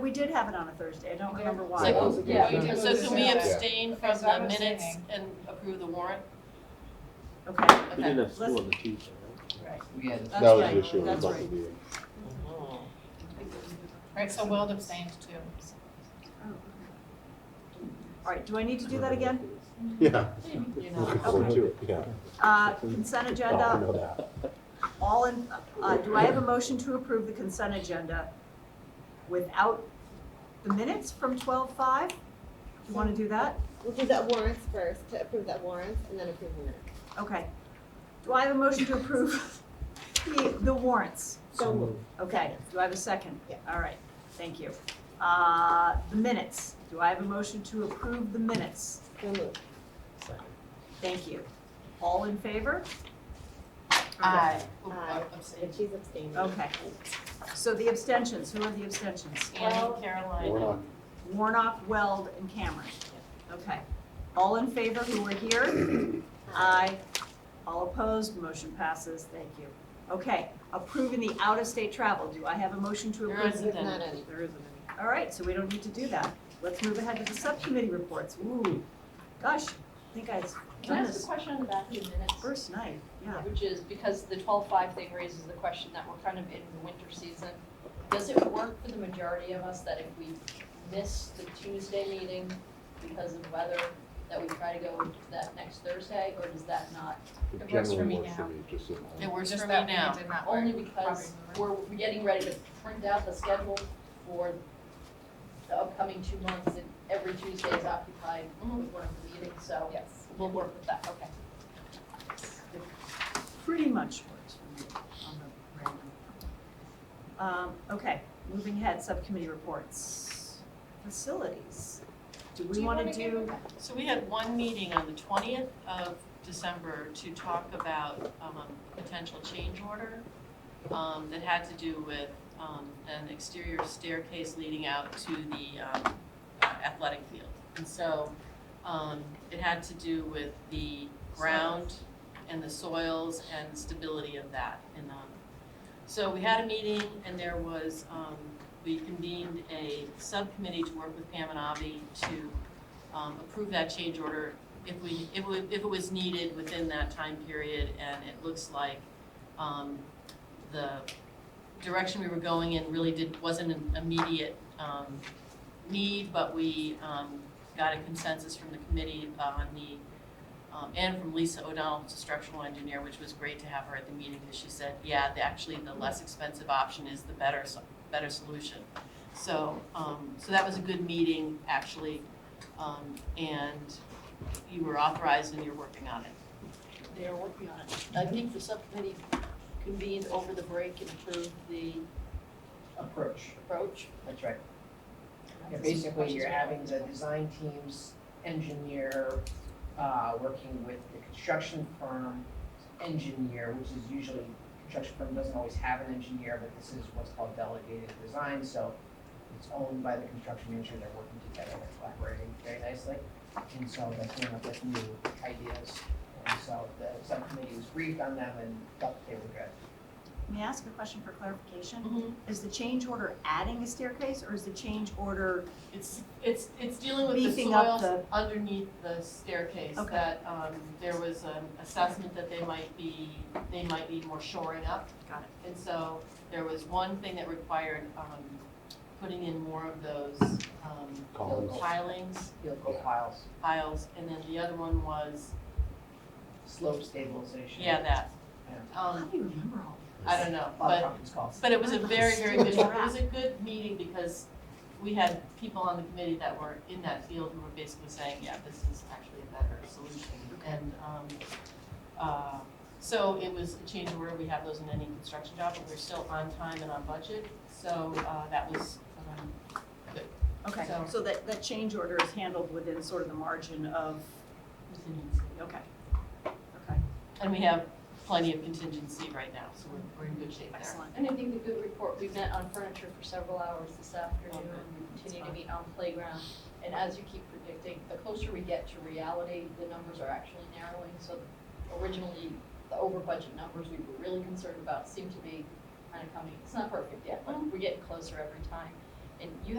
we did have it on a Thursday, I don't remember why. So- yeah, we did. So can we Yeah. abstain from Because I the was minutes abstaining. and approve the warrant? Okay, We Okay. didn't have school on the Tuesday, right? We had, That's That was right. the issue That's about the right. meeting. Right, so Weld abstained too. all right, do I need to do that again? Yeah, You know, looking forward to it, yeah. Uh, Consent I agenda, know that. all in, uh, do I have a motion to approve the consent agenda without the minutes from twelve-five? Do you want to do that? We'll do that warrants first, to approve that warrants, and then approve the minutes. Okay. Do I have a motion to approve the, the warrants? So moved. Okay, do I have a second? Yeah. All right, thank you. Uh, the minutes, do I have a motion to approve the minutes? So moved. Thank you. All in favor? Aye. Aye. And Abstain. she's abstaining. Okay. So the abstentions, who are the abstentions? Annie, Caroline, We're not, and Warnock, Weld, and Cameron. Okay. All in favor who were here? Aye. All opposed, motion passes, thank you. Okay, approving the out-of-state travel, do I have a motion to There approve? is. There's not any. There isn't any. All right, so we don't need to do that. Let's move ahead to the subcommittee reports. Ooh, gosh, I think I've Can I done ask a this question on the back of the minutes? first night, yeah. Which is because the twelve-five thing raises the question that we're kind of in the winter season. Does it work for the majority of us that if we miss the Tuesday meeting because of weather, that we try to go to that next Thursday, or does that not? it It works for generally me works for now. me, just at it home. works Just for me that now. one did not work. Only because Probably we're getting ready to print out the schedule for the upcoming two months, and every Tuesday is occupied with one of the meetings, so Yes. we'll work with that, okay. pretty much works for me on the random. Um, okay, moving ahead, subcommittee reports. Facilities. Do we wanna do, So we had one meeting on the twentieth of December to talk about, um, a potential change order, um, that had to do with, um, an exterior staircase leading out to the, um, uh, athletic field. And so, um, it had to do with the ground and the soils and stability of that, and, um, so we had a meeting and there was, um, we convened a subcommittee to work with Pam and Avi to um, approve that change order if we, if we, if it was needed within that time period, and it looks like, um, the direction we were going in really did, wasn't an immediate, um, need, but we, um, got a consensus from the committee on the, um, and from Lisa O'Donnell, who's a structural engineer, which was great to have her at the meeting, because she said, yeah, the- actually, the less expensive option is the better, so- better solution. So, um, so that was a good meeting, actually, um, and you were authorized and you're working on it. They are working on it. I think the subcommittee convened over the break and approved the approach, approach. that's right. Yeah, basically, you're having the design teams, engineer, uh, working with the construction firm, engineer, which is usually, construction firm doesn't always have an engineer, but this is what's called delegated design, so it's owned by the construction manager, they're working together, they're collaborating very nicely. And so they came up with new ideas, and so the subcommittee was briefed on them and felt that they were good. may I ask a question for clarification? Is the change order adding a staircase, or is the change order, It's, it's, it's dealing with the Beefing up soils underneath the staircase, Okay. that, um, there was an assessment that they might be, they might need more shoring up. Got it. And so there was one thing that required, um, putting in more of those, um, Columns. pilings, Field goal piles, piles, and then the other one was, slope stabilization. yeah, that. how Um, do you remember all I don't know, A lot of but conference calls. But it was a very, very good, it Stupid. was a good meeting because we had people on the committee that were in that field who were basically saying, yeah, this is actually a better solution. And, um, uh, so it was a change of order, we have those in any construction job, but we're still on time and on budget, so, uh, that was, um, that? Okay, So- so that, that change order is handled within sort of the margin of, contingency. okay, okay, And we have plenty of contingency right now, so we're, we're in good shape there. excellent. And I think the good report, we met on furniture for several hours this afternoon, we continue to meet on playground. And as you keep predicting, the closer we get to reality, the numbers are actually narrowing, so originally, the over budget numbers we were really Mm-hmm. concerned about seem to be kind of coming, it's not perfect yet, but we're getting closer every time. And you